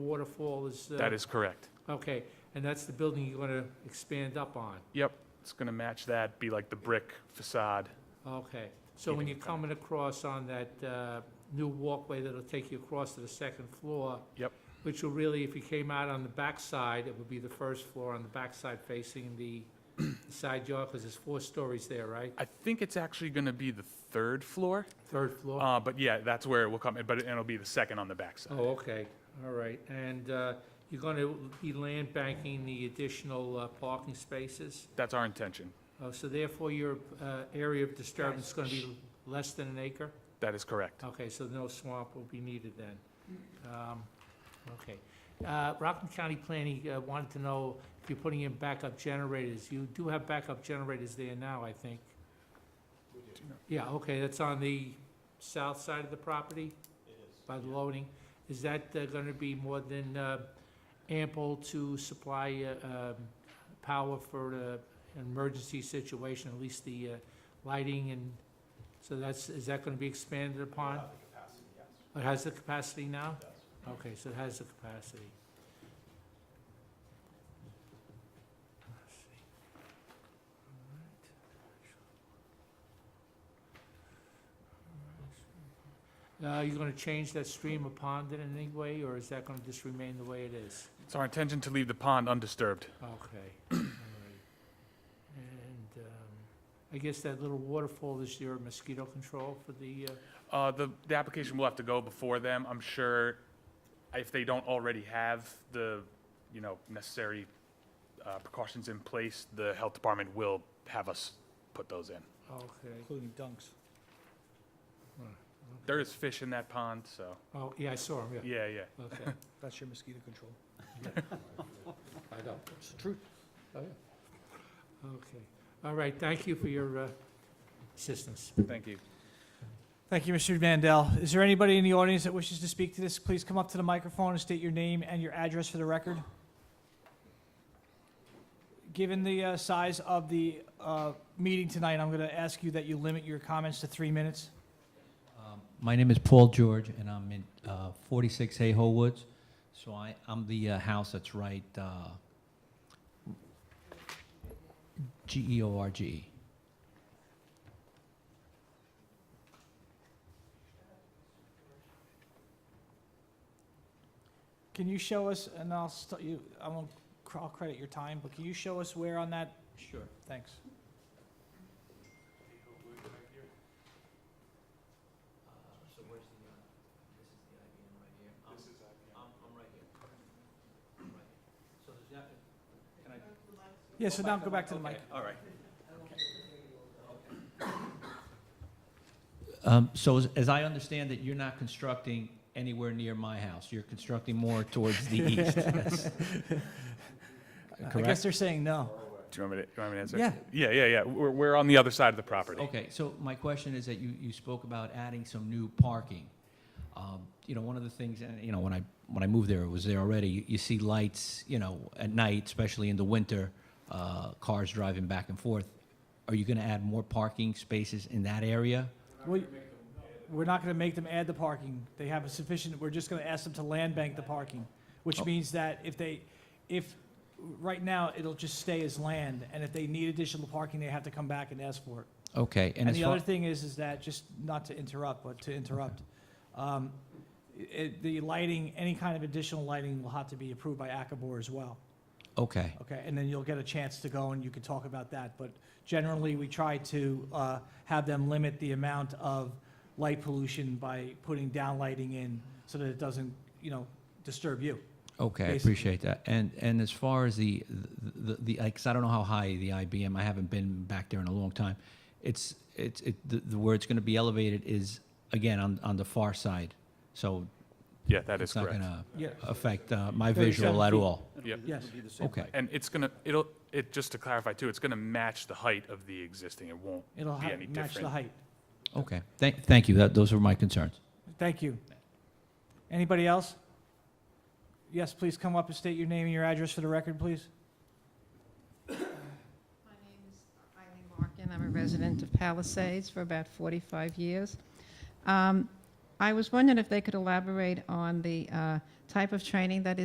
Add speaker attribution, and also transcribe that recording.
Speaker 1: waterfall is... uh,
Speaker 2: That is correct.
Speaker 1: Okay, and that's the building you're going to expand up on?
Speaker 2: Yep, it's going to match that, be like the brick facade.
Speaker 1: Okay, so when you're coming across on that uh, new walkway that'll take you across to the second floor?
Speaker 2: Yep.
Speaker 1: Which will really, if you came out on the back side, it would be the first floor on the back side facing the side yard, because there's four stories there, right?
Speaker 2: I think it's actually going to be the third floor,
Speaker 1: Third floor?
Speaker 2: uh, but yeah, that's where it will come, in. but it- it'll be the second on the backside.
Speaker 1: Oh, okay, all right. And uh, you're going to be land banking the additional uh, parking spaces?
Speaker 2: That's our intention.
Speaker 1: Oh, So therefore, your uh, area of disturbance is going to be less than an acre?
Speaker 2: That is correct.
Speaker 1: Okay, so no swamp will be needed then. Um, Okay. Uh, Rockland County Planning uh, wanted to know if you're putting in backup generators. You do have backup generators there now, I think. Yeah, okay, that's on the south side of the property? It is. By the loading. Is that going to be more than uh, ample to supply uh, um, power for uh, an emergency situation, at least the uh, lighting and, so that's, is that going to be expanded upon? It has the capacity now? Okay, so it has the capacity. Let's see. All right. Uh, you gonna change that stream or pond in any way, or is that gonna just remain the way it is?
Speaker 2: It's our intention to leave the pond undisturbed.
Speaker 1: Okay, all right. And, um, I guess that little waterfall is your mosquito control for the, uh,
Speaker 2: Uh, The, the application will have to go before them. I'm sure if they don't already have the, you know, necessary uh, precautions in place, the health department will have us put those in.
Speaker 1: okay.
Speaker 3: Including dunks.
Speaker 2: There is fish in that pond, so,
Speaker 1: Oh, yeah, I saw him, yeah,
Speaker 2: yeah, yeah.
Speaker 1: okay.
Speaker 3: That's your mosquito control.
Speaker 1: I know.
Speaker 3: It's the truth.
Speaker 1: Oh, Okay, all right, thank you for your uh, assistance.
Speaker 2: Thank you.
Speaker 4: Thank you, Mr. Mandel. Is there anybody in the audience that wishes to speak to this? Please come up to the microphone and state your name and your address for the record. Given the uh, size of the uh, meeting tonight, I'm going to ask you that you limit your comments to three minutes.
Speaker 5: Um, My name is Paul George, and I'm in uh, 46 Hayhoe Woods. So I, I'm the uh, house that's right, uh, E G-E-O-R-G.
Speaker 4: Can you show us, and I'll, st- you- I won't, cr- I'll credit your time, but can you show us where on that?
Speaker 5: Sure.
Speaker 4: Thanks.
Speaker 5: So where's the, this is the IBM right here. This is uh, IBM. I'm, I'm right here. So there's that, can I?
Speaker 4: Yeah, so now go back to the mic.
Speaker 5: All right. Um, so as, as I understand it, you're not constructing anywhere near my house. You're constructing more towards the east. That's-
Speaker 4: I guess
Speaker 5: Correct?
Speaker 4: they're saying no.
Speaker 2: Do you want me to, you want me to answer?
Speaker 4: Yeah.
Speaker 2: Yeah, yeah, yeah. We're, we're on the other side of the property.
Speaker 5: Okay, so my question is that you, you spoke about adding some new parking. Um, You know, one of the things, and, you know, when I, when I moved there, it was there already, you, you see lights, you know, at night, especially in the winter, uh, cars driving back and forth. Are you gonna add more parking spaces in that area?
Speaker 4: We- We're not gonna make them add the parking. They have a sufficient, we're just gonna ask them to land bank the parking, which
Speaker 5: Oh.
Speaker 4: means that if they, if, right now, it'll just stay as land, and if they need additional parking, they have to come back and ask for it.
Speaker 5: Okay, and
Speaker 4: And
Speaker 5: as
Speaker 4: the
Speaker 5: far,
Speaker 4: other thing is, is that, just not to interrupt, but to interrupt, um, it, the lighting, any kind of additional lighting will have to be approved by ACABOR as well.
Speaker 5: okay,
Speaker 4: Okay, and then you'll get a chance to go and you can talk about that, but generally, we try to uh, have them limit the amount of light pollution by putting down lighting in so that it doesn't, you know, disturb you.
Speaker 5: okay, I
Speaker 4: Basically.
Speaker 5: appreciate that. And, and as far as the, the, the, like, 'cause I don't know how high the IBM, I haven't been back there in a long time. It's, it's, it, the, the where it's gonna be elevated is, again, on, on the far side. So
Speaker 2: Yeah, that is
Speaker 5: It's not
Speaker 2: correct.
Speaker 5: gonna
Speaker 4: Yeah.
Speaker 5: affect uh,
Speaker 4: 37
Speaker 5: my visual at
Speaker 4: feet.
Speaker 5: all.
Speaker 2: Yep.
Speaker 4: Yes.
Speaker 5: Okay,
Speaker 2: And it's gonna, it'll, it, just to clarify too, it's gonna match the height of the existing. It won't
Speaker 4: It'll
Speaker 2: be
Speaker 4: ha-
Speaker 2: any
Speaker 4: match the
Speaker 2: different.
Speaker 4: height.
Speaker 5: okay. Thank, thank you. That, those were my concerns.
Speaker 4: Thank you. Anybody else? Yes, please come up and state your name and your address for the record, please.
Speaker 6: My name is Eileen Larkin. I'm a resident of Palisades for about 45 years. Um, I was wondering if they could elaborate on the uh, type of training that is.